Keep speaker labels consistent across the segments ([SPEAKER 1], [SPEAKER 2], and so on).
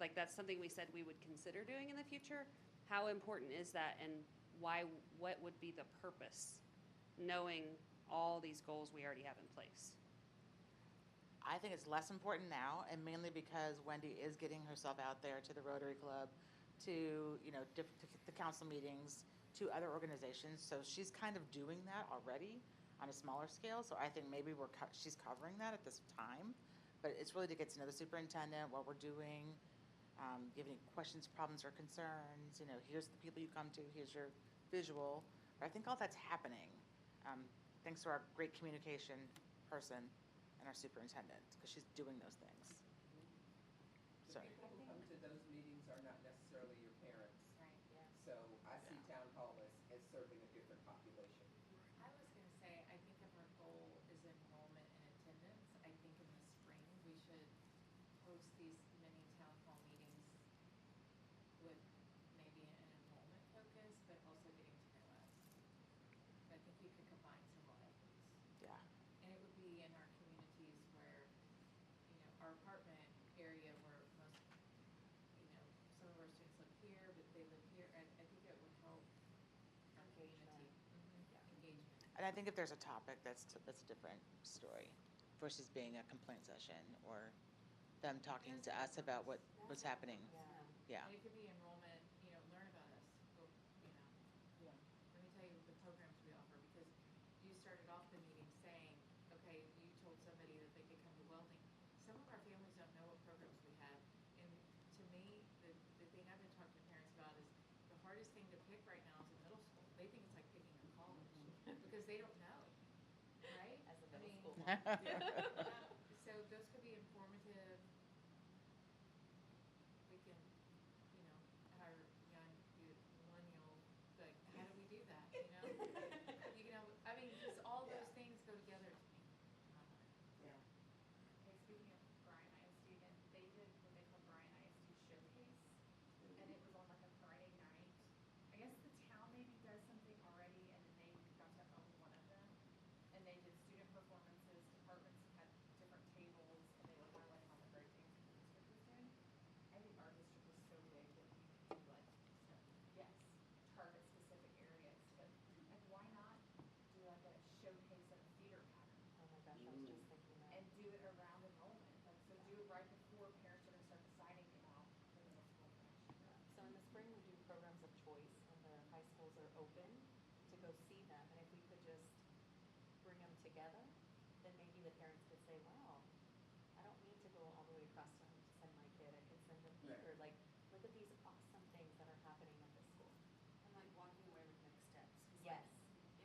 [SPEAKER 1] like that's something we said we would consider doing in the future. How important is that and why, what would be the purpose? Knowing all these goals we already have in place.
[SPEAKER 2] I think it's less important now, and mainly because Wendy is getting herself out there to the Rotary Club, to you know, diff- to the council meetings, to other organizations. So she's kind of doing that already on a smaller scale. So I think maybe we're co- she's covering that at this time, but it's really to get to know the superintendent, what we're doing. Um, give any questions, problems, or concerns. You know, here's the people you come to. Here's your visual. But I think all that's happening, um, thanks to our great communication person and our superintendent, because she's doing those things.
[SPEAKER 3] The
[SPEAKER 2] So,
[SPEAKER 3] people who come Um, to those meetings are not necessarily your parents.
[SPEAKER 4] Right, yeah.
[SPEAKER 3] So I see town hall as, as serving a different population.
[SPEAKER 4] I was gonna say, I think if our goal is enrollment and attendance, I think in the spring, we should host these mini town hall meetings with maybe an enrollment focus, but also getting to know us. I think we could combine several efforts.
[SPEAKER 2] yeah,
[SPEAKER 4] And it would be in our communities where, you know, our apartment area where most, you know, some of our students live here, but they live here, and I think it would help our community. Mhm, Engagement.
[SPEAKER 2] and I think if there's a topic, that's, that's a different story versus being a complaint session or them talking to us about what was happening. Yeah,
[SPEAKER 4] And it could be enrollment, you know, learn about us, go, you know. Let me tell you the programs we offer, because you started off the meeting saying, okay, you told somebody that they could come to welding. Some of our families don't know what programs we have, and to me, the, the thing I've been talking to parents about is the hardest thing to pick right now is a middle school. They think it's like picking a college, because they don't know, right?
[SPEAKER 5] As
[SPEAKER 4] I
[SPEAKER 5] a middle
[SPEAKER 4] mean,
[SPEAKER 5] school mom.
[SPEAKER 4] yeah, So those could be informative. We can, you know, our young youth, millennial, like, how do we do that, you know? You know, I mean, because all those things go together to me.
[SPEAKER 6] Okay, speaking of Bryan ISD, again, they did what they call Bryan ISD Showcase, and it was on like a Friday night. I guess the town maybe does something already, and then they got to own one of them. And they did student performances, departments had different tables, and they were highlighting all the great things that the district was doing. I think our district is so big that we could do like, so, yes, target specific areas, but like, why not do like a showcase of a theater pattern?
[SPEAKER 5] Oh my gosh, I was just thinking that.
[SPEAKER 6] and do it around enrollment, like, so do it right before parents are gonna start deciding about the middle school connection.
[SPEAKER 5] So in the spring, we do programs of choice when the high schools are open to go see them. And if we could just bring them together, then maybe the parents could say, wow, I don't need to go all the way across town to send my kid. I could send them here. Like, look at these awesome things that are happening at this school.
[SPEAKER 7] And like walking away with next steps. 'Cause, like,
[SPEAKER 5] Yes.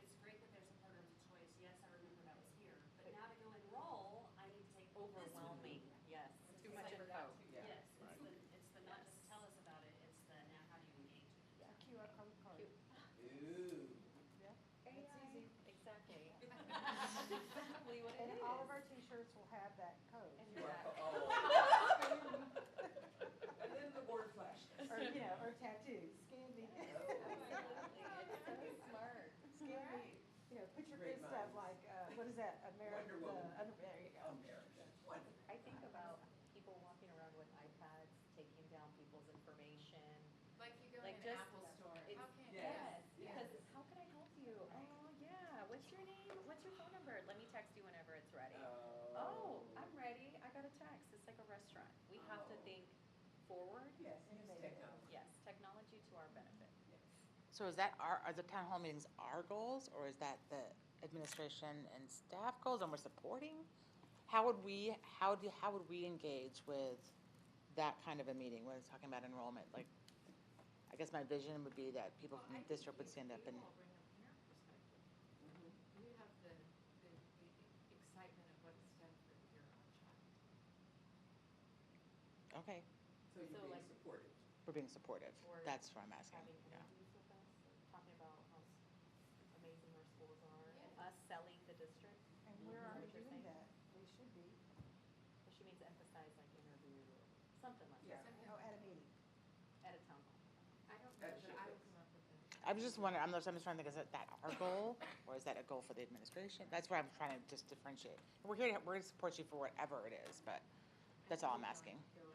[SPEAKER 7] It's great that there's a program of choice, yes, I remember that was here, but now to go enroll, I need to take this one.
[SPEAKER 5] Overwhelming, yes.
[SPEAKER 7] It's
[SPEAKER 5] Too
[SPEAKER 7] just
[SPEAKER 5] much
[SPEAKER 7] like-
[SPEAKER 5] info.
[SPEAKER 3] Yeah.
[SPEAKER 7] Yes, it's the, it's the not just tell us about it, it's the now how do you engage?
[SPEAKER 5] Yeah.
[SPEAKER 6] QR code card.
[SPEAKER 3] Ooh.
[SPEAKER 6] It's easy.
[SPEAKER 5] Exactly. That's Exactly what it is.
[SPEAKER 8] And all of our t-shirts will have that code.
[SPEAKER 5] And
[SPEAKER 3] You
[SPEAKER 5] you're
[SPEAKER 3] are-
[SPEAKER 5] back.
[SPEAKER 3] oh.
[SPEAKER 6] And then the word flash.
[SPEAKER 8] Or, you know, or tattoos, scan me,
[SPEAKER 5] Absolutely. So smart.
[SPEAKER 8] scan me, you know, put your
[SPEAKER 3] Great
[SPEAKER 8] good stuff
[SPEAKER 3] minds.
[SPEAKER 8] like, uh, what is that, America,
[SPEAKER 3] Wonder Woman.
[SPEAKER 8] there you go.
[SPEAKER 3] America, Oh, wonderful. Oh.
[SPEAKER 5] I think about people walking around with iPads, taking down people's information.
[SPEAKER 4] Like you go in
[SPEAKER 5] Like
[SPEAKER 4] an
[SPEAKER 5] just-
[SPEAKER 4] Apple store, how
[SPEAKER 5] it's-
[SPEAKER 4] can,
[SPEAKER 3] Yes,
[SPEAKER 4] yes,
[SPEAKER 5] Because how could I help you? Oh, yeah, what's your name? What's your phone number? Let me text you whenever it's ready. Oh, I'm ready, I got a text, it's like a restaurant. We have to
[SPEAKER 3] Oh.
[SPEAKER 5] think forward,
[SPEAKER 3] Yes, use technology.
[SPEAKER 5] yes, technology to our benefit.
[SPEAKER 2] so is that our, are the town hall meetings our goals, or is that the administration and staff goals and we're supporting? How would we, how do, how would we engage with that kind of a meeting, when it's talking about enrollment? Like, I guess my vision would be that people
[SPEAKER 4] Well,
[SPEAKER 2] from
[SPEAKER 4] I
[SPEAKER 2] the
[SPEAKER 4] think
[SPEAKER 2] district would
[SPEAKER 4] you-
[SPEAKER 2] stand up
[SPEAKER 4] you
[SPEAKER 2] and.
[SPEAKER 4] all bring a parent perspective. You have the, the, the excitement of what it's done for your own child.
[SPEAKER 2] Okay,
[SPEAKER 3] So you're
[SPEAKER 5] So,
[SPEAKER 3] being
[SPEAKER 5] like-
[SPEAKER 3] supported.
[SPEAKER 2] we're being supportive.
[SPEAKER 5] Or
[SPEAKER 2] That's what I'm asking,
[SPEAKER 5] Having
[SPEAKER 2] yeah.
[SPEAKER 5] interviews with us, talking about how s- amazing our schools are, and
[SPEAKER 4] Yeah.
[SPEAKER 5] us selling the district,
[SPEAKER 8] And we're already
[SPEAKER 5] What you're
[SPEAKER 8] doing
[SPEAKER 5] saying.
[SPEAKER 8] that, we should be,
[SPEAKER 5] which she means emphasize like interview, or something like
[SPEAKER 3] Yeah.
[SPEAKER 5] that,
[SPEAKER 8] oh, at a meeting.
[SPEAKER 5] at a town hall.
[SPEAKER 4] I don't know
[SPEAKER 3] That
[SPEAKER 4] that
[SPEAKER 3] should
[SPEAKER 4] I
[SPEAKER 3] be-
[SPEAKER 4] would come up with that.
[SPEAKER 2] I was just wondering, I'm just, I'm just trying to think, is that- that our goal, or is that a goal for the administration? That's where I'm trying to just differentiate. We're here, to- we're here to support you for whatever it is, but that's all I'm asking.
[SPEAKER 4] Go